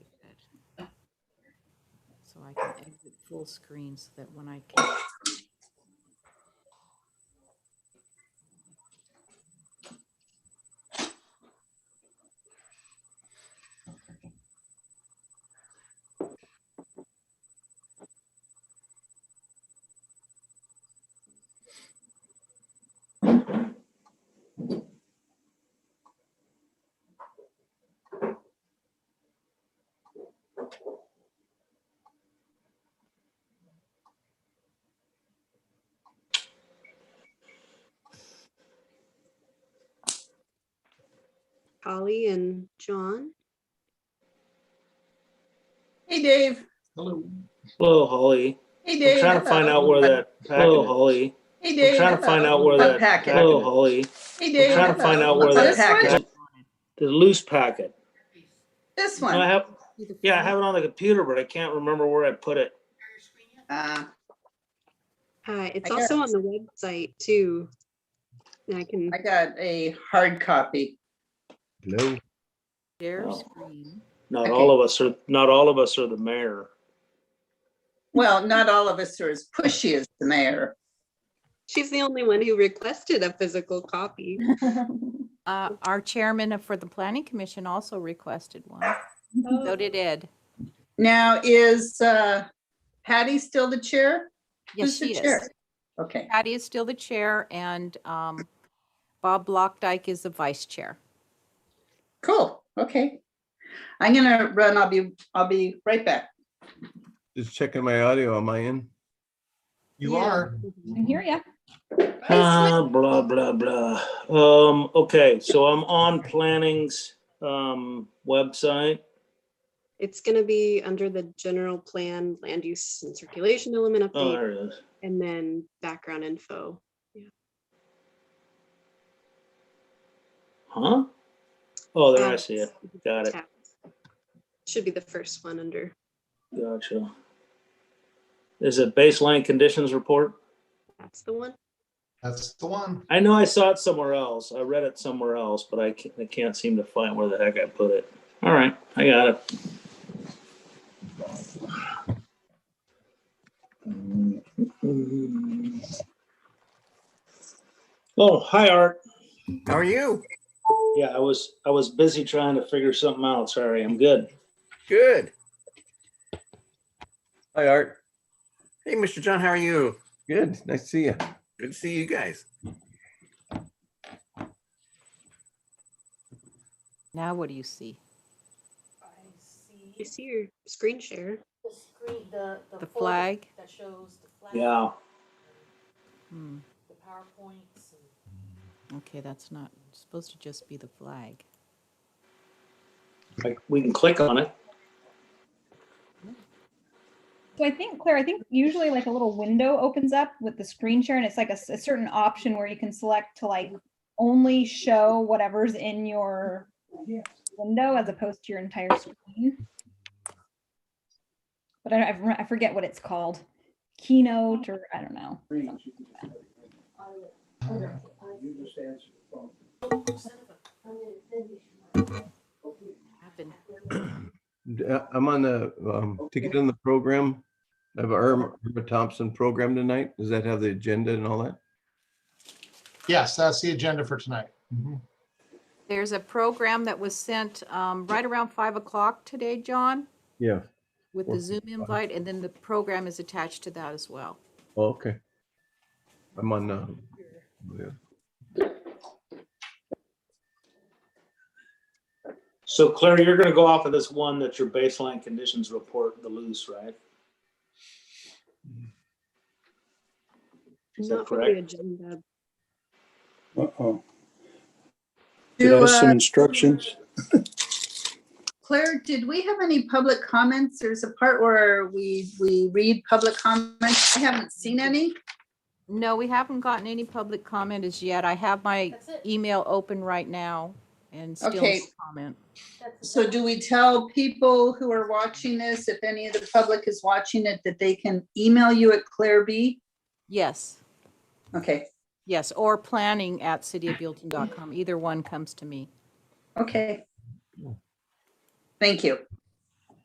so I can exit full screen so that when I can. Polly and John. Hey, Dave. Hello. Hello, Holly. Hey, I'm Dave. trying to find Hello. out where that. Hello, Packet. Holly. Hey, I'm Dave. trying to find Hello. out where A that. packet. Hello, Holly. Hey, I'm Dave. trying to hello. find out where What's that. This one? packet- The loose packet. This No, I one. have. Yeah, I have it on the computer, but I can't remember where I put it. Uh, Uh, it's I also got- on the website too. And I can, I got a hard copy. Hello. Share Oh. screen. Not Okay. all of us are. Not all of us are the mayor. Well, not all of us are as pushy as the mayor. she's the only one who requested a physical copy. Uh, our chairman for the planning commission also requested one. Oh. So did Ed. Now, is uh, Patty still the chair? Yes, Who's the she is. chair? Okay, Patty is still the chair and, um, Bob Blockdyke is the vice chair. cool. Okay. I'm gonna run. I'll be, I'll be right back. Just checking my audio. Am I in? You are. can hear ya. Uh, blah, blah, blah. Um, okay, so I'm on planning's, um, website. It's gonna be under the general plan, land use and circulation element Oh, update, there it is. and then background info. Huh? Oh, there I Tabs. see it. Got it. Tabs. Should be the first one under, Gotcha. Is it baseline conditions report? that's the one. That's the one. I know I saw it somewhere else. I read it somewhere else, but I can't, I can't seem to find where the heck I put it. All right, I got it. Oh, hi, Art. How are you? Yeah, I was, I was busy trying to figure something out. Sorry, I'm good. Good. Hi, Art. Hey, Mr. John, how are you? Good. Nice to see you. Good to see you guys. Now what do you see? You see your screen share. The flag? Yeah. Hmm. Okay, that's not, it's supposed to just be the flag. Like, We can click on it. So I think, Claire, I think usually like a little window opens up with the screen share and it's like a, s- a certain option where you can select to like only show whatever's in your window as opposed to your entire screen. But I, don't- I rem- I forget what it's called. Keynote or I don't know. Happen. D- uh, I'm on the, um, to get in the program. I have a Irma Irma Thompson program tonight. Does that have the agenda and all that? Yes, that's the agenda for tonight. Mhm. There's a program that was sent um, right around five o'clock today, John, Yeah. with the Zoom invite, and then the program is attached to that as well. Oh, Okay. I'm on, uh, yeah. So Claire, you're gonna go off of this one that's your baseline conditions report, the loose, right? Is that Not for the correct? agenda, Uh-oh. Did Do, I some uh, instructions? Claire, did we have any public comments? There's a part where we, we read public comments. I haven't seen any. No, we haven't gotten any public comment as yet. I have my email open right now and still no Okay. comment. So do we tell people who are watching this, if any of the public is watching it, that they can email you at Claire B? Yes, Okay, yes, or planning at cityofbuilton.com. Either one comes to me. okay. Thank you.